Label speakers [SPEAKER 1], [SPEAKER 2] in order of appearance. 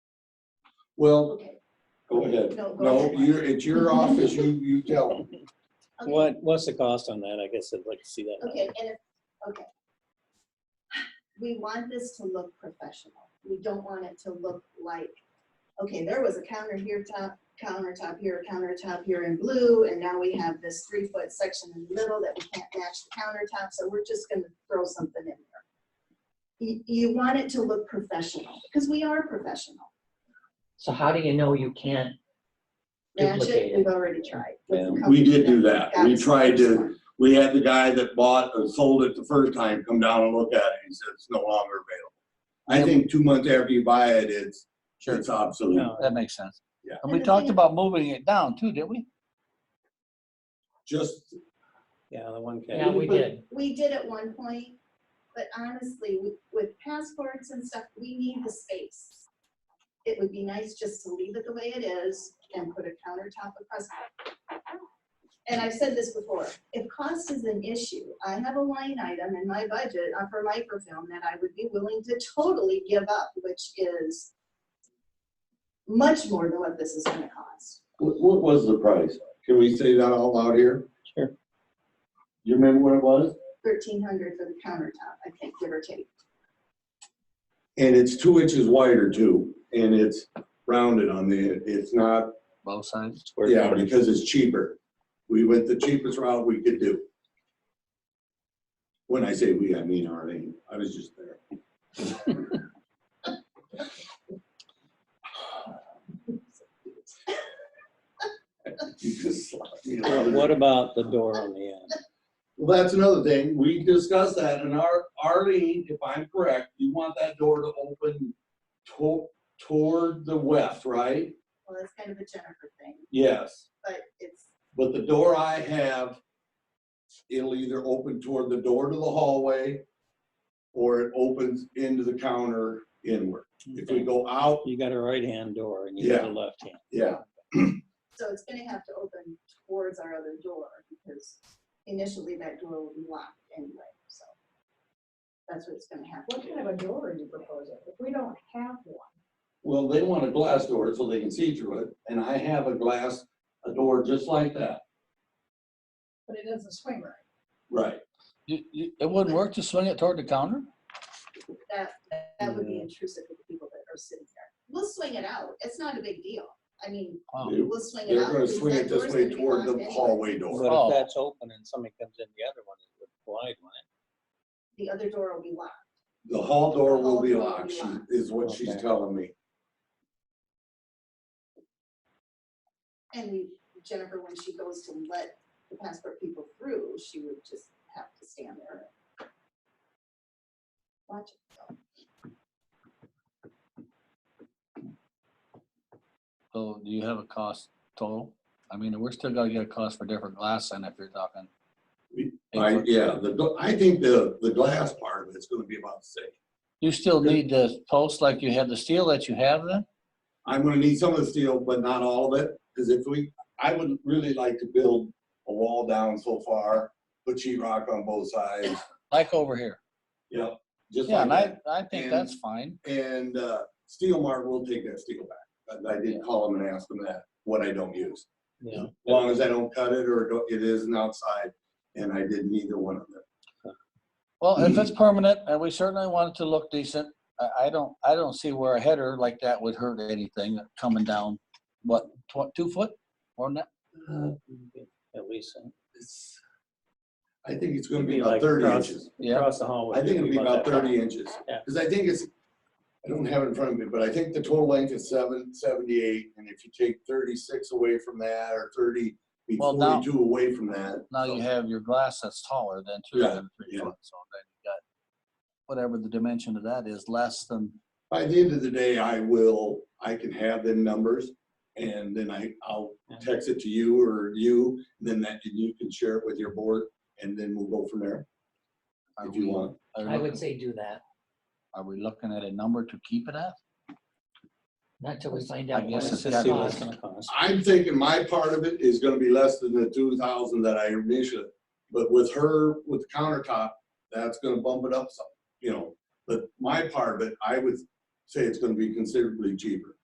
[SPEAKER 1] Well,
[SPEAKER 2] Okay.
[SPEAKER 1] go ahead.
[SPEAKER 2] No, go
[SPEAKER 1] No,
[SPEAKER 2] ahead.
[SPEAKER 1] you're, it's your office, you, you tell them.
[SPEAKER 2] Okay.
[SPEAKER 3] What, what's the cost on that? I guess I'd like to see that.
[SPEAKER 2] Okay, and if, okay. We want this to look professional. We don't want it to look like, okay, there was a counter here, top, countertop here, countertop here in blue, and now we have this three-foot section in the middle that we can't match the countertop, so we're just gonna throw something in there. You, you want it to look professional, because we are professional.
[SPEAKER 4] So how do you know you can't?
[SPEAKER 2] Match
[SPEAKER 4] Duplicate
[SPEAKER 2] it,
[SPEAKER 4] it.
[SPEAKER 2] we've already tried. with
[SPEAKER 3] Yeah,
[SPEAKER 2] the
[SPEAKER 1] we
[SPEAKER 2] company
[SPEAKER 1] did do that.
[SPEAKER 2] got
[SPEAKER 1] We
[SPEAKER 2] us the
[SPEAKER 1] tried
[SPEAKER 2] first
[SPEAKER 1] to-
[SPEAKER 2] one.
[SPEAKER 1] We had the guy that bought or sold it the first time come down and look at it. He said it's no longer available. I think two months after you buy it, it's,
[SPEAKER 5] Sure,
[SPEAKER 1] it's obsolete.
[SPEAKER 3] No,
[SPEAKER 5] that makes sense.
[SPEAKER 1] Yeah.
[SPEAKER 5] And we talked about moving it down too, didn't we?
[SPEAKER 1] Just,
[SPEAKER 3] yeah, the one
[SPEAKER 4] Yeah,
[SPEAKER 3] K.
[SPEAKER 4] we did.
[SPEAKER 2] We did at one point, but honestly, with- with passports and stuff, we need the space. It would be nice just to leave it the way it is and put a countertop across. it. And I've said this before, if cost is an issue, I have a line item in my budget uh, for microfilm that I would be willing to totally give up, which is much more than what this is gonna cost.
[SPEAKER 6] What, what was the price?
[SPEAKER 1] can we say that out loud here?
[SPEAKER 6] You remember what it was?
[SPEAKER 2] Thirteen hundred for the countertop, I think, give or take.
[SPEAKER 1] And it's two inches wider too, and it's rounded on the, it's not,
[SPEAKER 5] Both sides.
[SPEAKER 3] Square
[SPEAKER 1] yeah,
[SPEAKER 3] footage.
[SPEAKER 1] because it's cheaper. We went the cheapest route we could do. When I say we, I mean Arlene. I was just there. You just slapped me.
[SPEAKER 3] Well, What about the door on the end?
[SPEAKER 1] Well, that's another thing. We discussed that and our, Arlene, if I'm correct, you want that door to open to, toward the west, right?
[SPEAKER 2] Well, that's kind of a Jennifer thing,
[SPEAKER 1] Yes.
[SPEAKER 2] but it's
[SPEAKER 1] But the door I have, it'll either open toward the door to the hallway or it opens into the counter inward. If we go out,
[SPEAKER 3] You got a right-hand door and you got a left-hand.
[SPEAKER 1] yeah,
[SPEAKER 2] So it's gonna have to open towards our other door because initially that door will be locked anyway, so. That's what it's gonna
[SPEAKER 7] What
[SPEAKER 2] happen.
[SPEAKER 7] kind of a door are you proposing? If we don't have one,
[SPEAKER 1] well, they want a glass door so they can see through it. And I have a glass, a door just like that.
[SPEAKER 7] but it doesn't swing right.
[SPEAKER 1] Right.
[SPEAKER 5] You, you, it wouldn't work to swing it toward the counter?
[SPEAKER 2] That, that would be intrusive with the people that are sitting there. We'll swing it out. It's not a big deal. I mean,
[SPEAKER 5] Wow.
[SPEAKER 1] Dude,
[SPEAKER 2] we'll swing it
[SPEAKER 1] They're
[SPEAKER 2] out.
[SPEAKER 1] gonna
[SPEAKER 2] because
[SPEAKER 1] swing
[SPEAKER 2] that
[SPEAKER 1] it this
[SPEAKER 2] door's
[SPEAKER 1] way
[SPEAKER 2] gonna be
[SPEAKER 1] toward
[SPEAKER 2] locked
[SPEAKER 1] the
[SPEAKER 2] anyway.
[SPEAKER 1] hallway door.
[SPEAKER 3] But
[SPEAKER 5] Oh.
[SPEAKER 3] if that's open and somebody comes in the other one, it would collide, wouldn't
[SPEAKER 2] The other door will be locked.
[SPEAKER 1] The hall door will be
[SPEAKER 2] The hall door will
[SPEAKER 1] locked,
[SPEAKER 2] be
[SPEAKER 1] she-
[SPEAKER 2] locked.
[SPEAKER 1] is what she's
[SPEAKER 3] Okay.
[SPEAKER 1] telling me.
[SPEAKER 2] And we- Jennifer, when she goes to let the passport people through, she would just have to stand there. and Watch it. go.
[SPEAKER 5] So do you have a cost total? I mean, we're still gonna get a cost for different glass then if you're talking.
[SPEAKER 1] We- I, yeah, the, gl- I think the, the glass part of it's gonna be about the same.
[SPEAKER 5] You still need the post like you have the steel that you have then?
[SPEAKER 1] I'm gonna need some of the steel, but not all of it, because if we, I would really like to build a wall down so far, put sheet rock on both sides,
[SPEAKER 5] Like over here?
[SPEAKER 1] yep, just like
[SPEAKER 5] Yeah, and I,
[SPEAKER 1] that.
[SPEAKER 5] I think
[SPEAKER 1] And-
[SPEAKER 5] that's fine.
[SPEAKER 1] And, uh, Steel Mart will take that steel back, but I did call them and ask them that, what I don't use.
[SPEAKER 3] it?
[SPEAKER 1] As long as I don't cut it or don't- it isn't outside, and I didn't either one of them.
[SPEAKER 5] Well, if
[SPEAKER 1] Mm-hmm.
[SPEAKER 5] it's permanent and we certainly want it to look decent, I, I don't, I don't see where a header like that would hurt anything coming down. What, tw- two foot or not?
[SPEAKER 3] Yeah. At least, uh,
[SPEAKER 1] It's- I think it's gonna
[SPEAKER 3] It'd
[SPEAKER 1] be
[SPEAKER 3] be
[SPEAKER 1] about
[SPEAKER 3] like
[SPEAKER 1] thirty
[SPEAKER 3] across-
[SPEAKER 1] inches.
[SPEAKER 5] Yeah,
[SPEAKER 3] across the hallway.
[SPEAKER 1] I think it'll be about
[SPEAKER 3] that
[SPEAKER 1] thirty
[SPEAKER 3] high.
[SPEAKER 1] inches,
[SPEAKER 3] Yeah.
[SPEAKER 1] because I think it's, I don't have it in front of me, but I think the total length is seven, seventy-eight, and if you take thirty-six away from that, or thirty, be
[SPEAKER 5] Well, now-
[SPEAKER 1] forty-two away from that.
[SPEAKER 5] now you have your glass that's taller than two
[SPEAKER 1] Yeah,
[SPEAKER 5] than three
[SPEAKER 1] yeah.
[SPEAKER 5] foot, so then you got whatever the dimension of that is, less than,
[SPEAKER 1] By the end of the day, I will, I can have them numbers, and then I, I'll text it to you or you, then that, and you can share it with your board, and then we'll go from there,
[SPEAKER 5] are
[SPEAKER 1] if you
[SPEAKER 5] we,
[SPEAKER 1] want.
[SPEAKER 5] are we
[SPEAKER 4] I would
[SPEAKER 5] looking-
[SPEAKER 4] say do that,
[SPEAKER 5] are we looking at a number to keep it at?
[SPEAKER 4] not till we find
[SPEAKER 5] I
[SPEAKER 4] out.
[SPEAKER 5] guess
[SPEAKER 4] what
[SPEAKER 5] it's
[SPEAKER 4] it
[SPEAKER 5] gotta
[SPEAKER 3] Just see what it's
[SPEAKER 4] costs.
[SPEAKER 3] gonna cost.
[SPEAKER 1] I'm thinking my part of it is gonna be less than the two thousand that I initially, but with her, with the countertop, that's gonna bump it up some, you know. But my part of it, I would say it's gonna be considerably cheaper.